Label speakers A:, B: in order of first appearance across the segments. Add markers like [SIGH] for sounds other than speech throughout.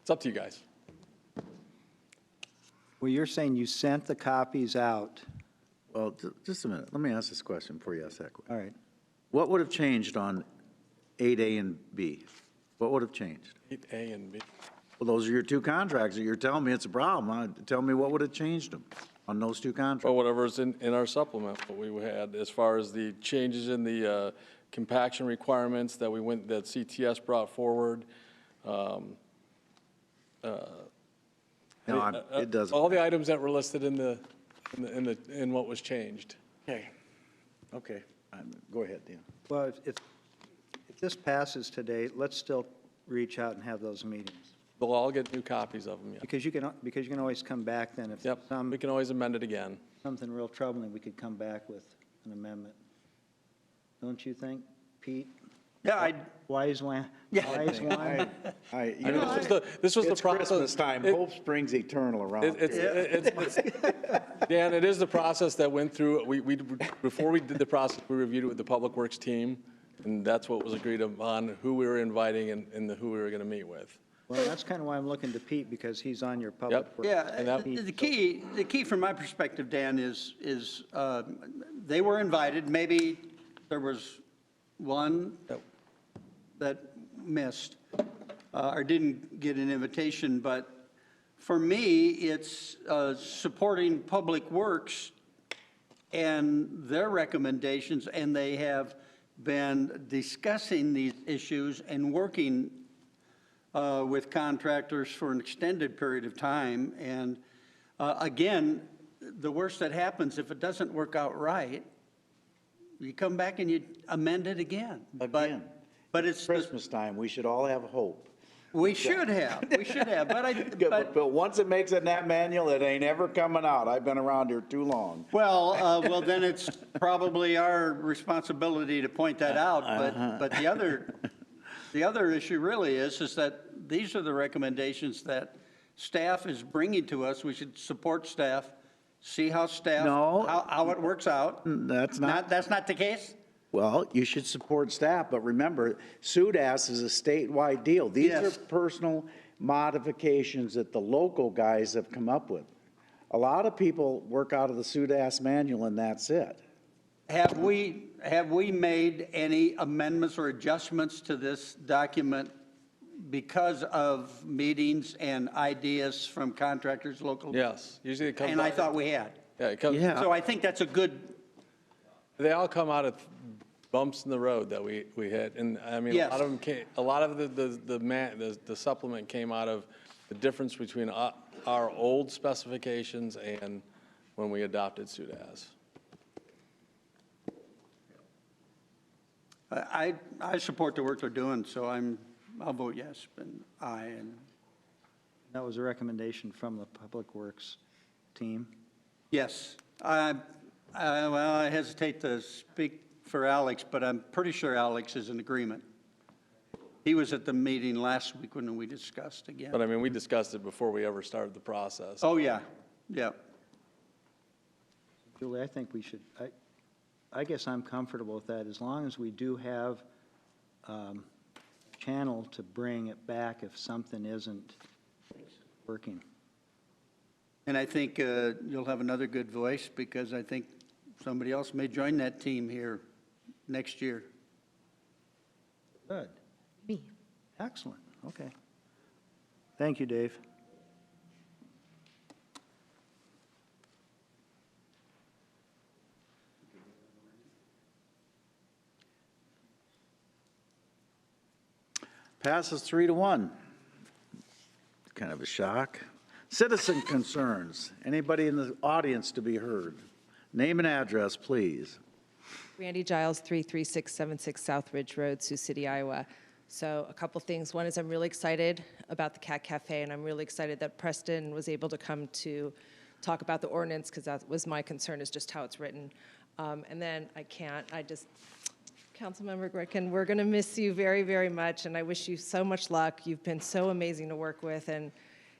A: It's up to you guys.
B: Well, you're saying you sent the copies out.
C: Well, ju- just a minute, let me ask this question before you ask that question.
B: All right.
C: What would have changed on 8A and B? What would have changed?
A: Eight A and B.
C: Well, those are your two contracts, that you're telling me it's a problem, Uh, tell me what would have changed them on those two
A: Or
C: contracts?
A: whatever's in, in our supplement, what we had, as far as the changes in the uh, compaction requirements that we went, that CTS brought forward. Oh,
C: No,
A: uh,
C: I'm- it doesn't.
A: All the items that were listed in the, in the- in the, in what was changed.
C: Okay. Okay, I'm- go ahead, Dan.
B: Well, if- if, if this passes today, let's still reach out and have those meetings.
A: They'll all get new copies of them, yeah.
B: Because um, you can, because you can always come back then if
A: Yep,
B: some,
A: we can always amend it again.
B: something real troubling, we could come back with an amendment. Don't you think, Pete?
C: Yeah, I,
B: Wise one, wise one?
C: I, you
A: This was the, this was the
C: It's
A: process.
C: Christmas time,
A: It-
C: hope springs eternal around
A: It- It's,
C: here.
A: it- it's,
D: [LAUGHS]
A: it's- Dan, it is the process that went through, we, we, before we did the process, we reviewed it with the Public Works team, and that's what was agreed upon, who we were inviting and, and the- who we were gonna meet with.
B: Well, that's kind of why I'm looking to Pete, because he's on your public.
A: Yep.
B: works.
A: And
D: Yeah,
A: that-
D: the the key, the key from my perspective, Dan, is, is uh, they were invited, maybe there was one that missed uh, or didn't get an invitation, but for me, it's uh, supporting Public Works and their recommendations, and they have been discussing these issues and working uh, with contractors for an extended period of time. And uh, again, the worst that happens, if it doesn't work out right, you come back and you amend it again. But
C: Again.
D: But it's, the-
C: Christmas time, we should all have hope.
D: we should have, we should have, but
C: [LAUGHS]
D: I,
C: Good,
D: but,
C: But, but once it makes it in that manual, it ain't ever coming out. I've been around here too long.
D: well,
C: [LAUGHS]
D: uh, well, then it's probably our responsibility to point that
C: Uh-huh.
D: out, but, but the other, the other issue really is, is that these are the recommendations that staff is bringing to us, we should support staff, see how staff,
C: No.
D: how, how it works out.
C: That's not,
D: Not, that's not the case?
C: well, you should support staff, but remember, SUDAS is a statewide deal. These are
D: Yes.
C: personal modifications that the local guys have come up with. A lot of people work out of the SUDAS manual and that's it.
D: Have we, have we made any amendments or adjustments to this document because of meetings and ideas from contractors, local?
A: Yes, usually it comes.
D: And I
A: out-
D: thought we had.
A: Yeah, it comes,
C: Yeah.
D: So I think that's a good,
A: they all come out of bumps in the road that we, we hit, and I mean, a
D: Yes.
A: lot of them came, a lot of the, the, the man, the the supplement came out of the difference between our, our old specifications and when we adopted SUDAS.
D: I, I support the work they're doing, so I'm, I'll vote yes, and aye, and,
B: That was a recommendation from the Public Works team.
D: yes. I, I, well, I hesitate to speak for Alex, but I'm pretty sure Alex is in agreement. He was at the meeting last week when we discussed again.
A: But I mean, we discussed it before we ever started the process.
D: Oh, yeah, yeah.
B: Julie, I think we should, I, I guess I'm comfortable with that, as long as we do have um, channel to bring it back if something isn't working.
D: And I think uh, you'll have another good voice because I think somebody else may join that team here next year.
B: Good.
E: Me.
B: Excellent, okay. Thank you, Dave.
C: Passes three to one. Kind of a shock. Citizen concerns. Anybody in the audience to be heard? Name and address, please.
E: Randy Giles, 33676 South Ridge Road, Sioux City, Iowa. So a couple things. One is I'm really excited about the Cat Cafe, and I'm really excited that Preston was able to come to talk about the ordinance, because that was my concern, is just how it's written. Um, And then I can't, I just, Councilmember Gretkin, we're going to miss you very, very much, and I wish you so much luck. You've been so amazing to work with, and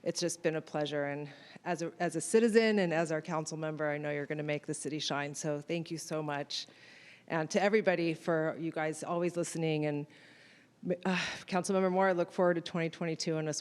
E: it's just been a pleasure. And as a, as a citizen and as our council member, I know you're going to make the city shine, so thank you so much. And to everybody for you guys always listening, and uh, Councilmember Moore, I look forward to 2022 and us